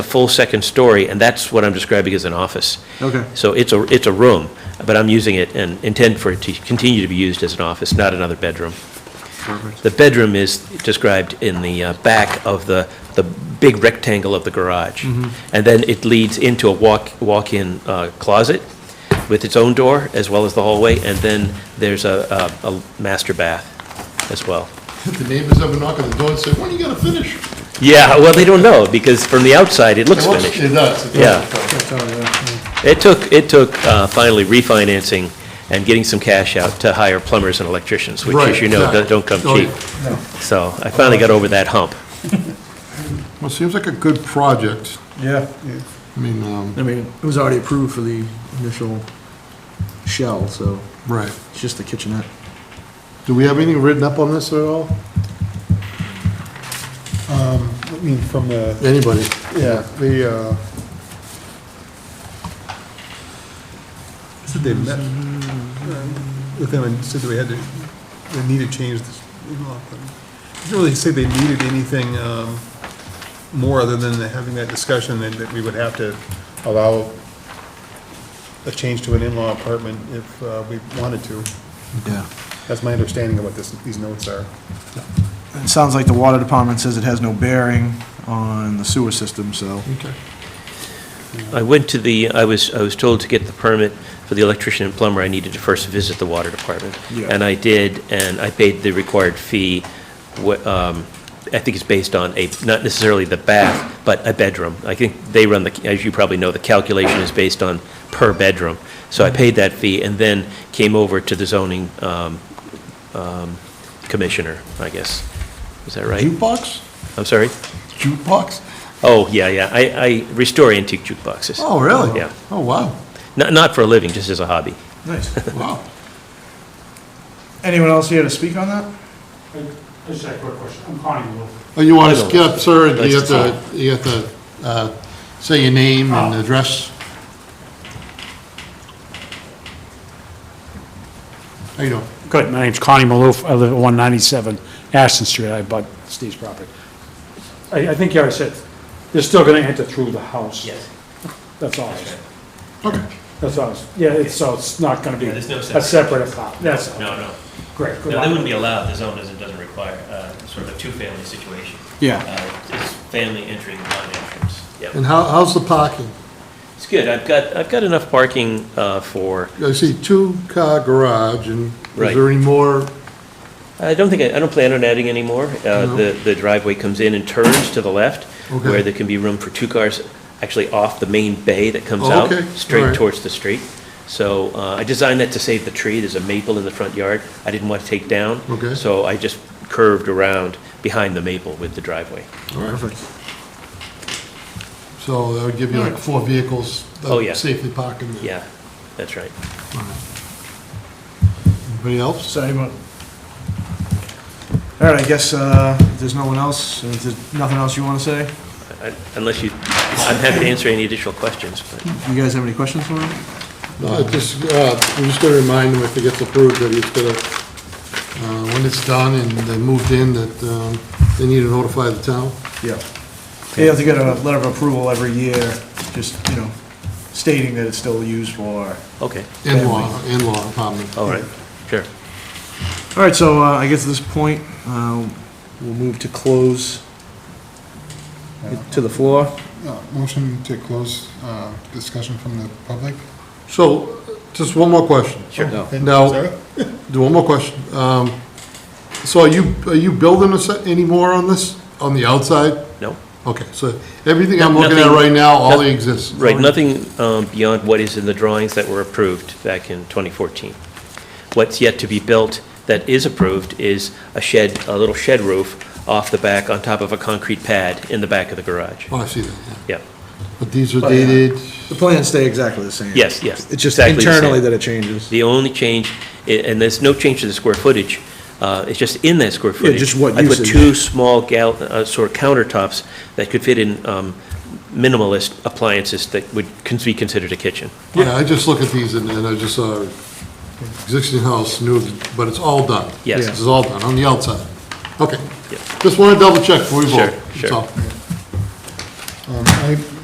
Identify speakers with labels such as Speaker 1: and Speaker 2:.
Speaker 1: a full second story, and that's what I'm describing as an office.
Speaker 2: Okay.
Speaker 1: So it's a, it's a room, but I'm using it and intend for it to continue to be used as an office, not another bedroom.
Speaker 2: Perfect.
Speaker 1: The bedroom is described in the uh, back of the, the big rectangle of the garage. And then it leads into a walk, walk-in uh, closet with its own door, as well as the hallway, and then there's a, a a master bath as well.
Speaker 3: The neighbors ever knock on the door and say, when are you gonna finish?
Speaker 1: Yeah, well, they don't know, because from the outside, it looks
Speaker 3: It looks-
Speaker 1: finished.
Speaker 3: It does. it does.
Speaker 1: Yeah. It took, it took uh, finally refinancing and getting some cash out to hire plumbers and electricians, which, as
Speaker 3: Right,
Speaker 1: you know,
Speaker 3: exactly.
Speaker 1: don't- don't come
Speaker 3: Oh, yeah.
Speaker 1: cheap. So I finally got over that hump.
Speaker 3: Well, it seems like a good project.
Speaker 2: Yeah.
Speaker 3: I mean, um,
Speaker 2: I mean, it was already approved for the initial shell, so
Speaker 3: right.
Speaker 2: it's just the kitchenette.
Speaker 3: Do we have anything written up on this at all?
Speaker 4: Um, I mean, from the,
Speaker 3: Anybody?
Speaker 4: yeah, the, uh, said they met um, with them and said that we had to, they need to change this in-law plan. Didn't really say they needed anything, um, more other than having that discussion and that we would have to allow a change to an in-law apartment if, uh, we wanted to.
Speaker 2: Yeah.
Speaker 4: That's my understanding of what this, these notes are.
Speaker 2: It sounds like the water department says it has no bearing on the sewer system, so.
Speaker 3: Okay.
Speaker 1: I went to the, I was, I was told to get the permit for the electrician and plumber, I needed to first visit the water department.
Speaker 2: Yeah.
Speaker 1: And I did, and I paid the required fee, wh- um, I think it's based on a, not necessarily the bath, but a bedroom. I think they run the, as you probably know, the calculation is based on per bedroom. So I paid that fee and then came over to the zoning um, um, commissioner, I guess. Is that right?
Speaker 3: Jukebox?
Speaker 1: I'm sorry?
Speaker 3: Jukebox?
Speaker 1: Oh, yeah, yeah, I, I restore antique jukeboxes.
Speaker 3: Oh, really?
Speaker 1: Yeah.
Speaker 3: Oh, wow,
Speaker 1: Not, not for a living, just as a hobby.
Speaker 2: Nice.
Speaker 3: wow.
Speaker 2: Anyone else here to speak on that?
Speaker 5: I just had a quick question. I'm Connie Wolf.
Speaker 3: Oh, you want to skip, sir, and you have
Speaker 1: Let's-
Speaker 3: to, you have to, uh, say your name
Speaker 1: Ah.
Speaker 3: and address? How you doing?
Speaker 5: Good, my name's Connie Maloof. I live at 197 Ashton Street. I bought Steve's property. I, I think you already said, they're still going to enter through the house. That's all. I said.
Speaker 3: Okay.
Speaker 5: That's all. I said. Yeah, it's, so it's not going to be
Speaker 1: Yeah, there's no
Speaker 5: a
Speaker 1: separate.
Speaker 5: separate apartment. That's all.
Speaker 1: No, no.
Speaker 5: Great. good
Speaker 1: No, they wouldn't be
Speaker 5: luck.
Speaker 1: allowed, the zone doesn't, doesn't require, uh, sort of a two-family situation.
Speaker 2: Yeah.
Speaker 1: Uh, It's family entry and non-entrance. Yeah,
Speaker 3: And how, how's the parking?
Speaker 1: it's good, I've got, I've got enough parking, uh, for,
Speaker 3: I see two-car garage, and is
Speaker 1: Right.
Speaker 3: there any more?
Speaker 1: I don't think, I I don't plan on adding any more. Uh,
Speaker 3: No.
Speaker 1: the, the driveway comes in and turns to the left,
Speaker 3: Okay.
Speaker 1: where there can be room for two cars, actually off the main bay that comes
Speaker 3: Oh,
Speaker 1: out,
Speaker 3: okay. All
Speaker 1: straight
Speaker 3: right.
Speaker 1: towards the street. So, uh, I designed that to save the tree, there's a maple in the front yard, I didn't want to take down.
Speaker 3: Okay.
Speaker 1: So I just curved around behind the maple with the driveway.
Speaker 3: Perfect. So that would give you like four vehicles that
Speaker 1: Oh, yeah.
Speaker 3: safely park in there.
Speaker 1: Yeah, that's right.
Speaker 3: Anybody else?
Speaker 2: So anyone? All right, I guess uh, if there's no one else, uh, if there's nothing else you want to say?
Speaker 1: I- Unless you, I'm happy to answer any additional questions, but.
Speaker 2: You guys have any questions for him?
Speaker 3: No, I just, uh, I'm just gonna remind him if it gets approved that he's gonna, uh, when it's done and they moved in, that, um, they need to notify the town.
Speaker 2: Yeah. You have to get a letter of approval every year, just, you know, stating that it's still used for.
Speaker 1: Okay,
Speaker 3: In-law, in-law apartment.
Speaker 1: all right, sure.
Speaker 2: All right, so uh, I guess at this point, um, we'll move to close it to the floor.
Speaker 4: Uh, Motion to close, uh, discussion from the public?
Speaker 3: So, just one more question.
Speaker 1: Sure.
Speaker 3: Now, do one more question. Um, so are you, are you building a set anymore on this, on the outside?
Speaker 1: No?
Speaker 3: Okay, so everything I'm looking at
Speaker 1: Nothing-
Speaker 3: right now, all
Speaker 1: noth-
Speaker 3: exists.
Speaker 1: Right, nothing um, beyond what is in the drawings that were approved back in 2014. What's yet to be built that is approved is a shed, a little shed roof off the back on top of a concrete pad in the back of the garage.
Speaker 3: Oh, I see that, yeah.
Speaker 1: Yeah,
Speaker 3: But these are
Speaker 2: But, yeah.
Speaker 3: dated,
Speaker 2: The plans stay exactly the same.
Speaker 1: yes, yes.
Speaker 2: It's just
Speaker 1: exactly the same.
Speaker 2: internally that it changes.
Speaker 1: The only change, i- and there's no change to the square footage, uh, it's just in that square footage.
Speaker 2: just what
Speaker 1: I put
Speaker 2: usage.
Speaker 1: two small gal, uh, sort of countertops that could fit in um, minimalist appliances that would cons- be considered a kitchen.
Speaker 3: yeah, I just look at these and and I just saw existing house, new, but it's all done.
Speaker 1: Yes.
Speaker 3: It's all done, on the outside. Okay.
Speaker 1: Yeah.
Speaker 3: Just want to double check before we
Speaker 1: Sure,
Speaker 3: vote. That's
Speaker 1: sure.
Speaker 3: all.
Speaker 4: Um, I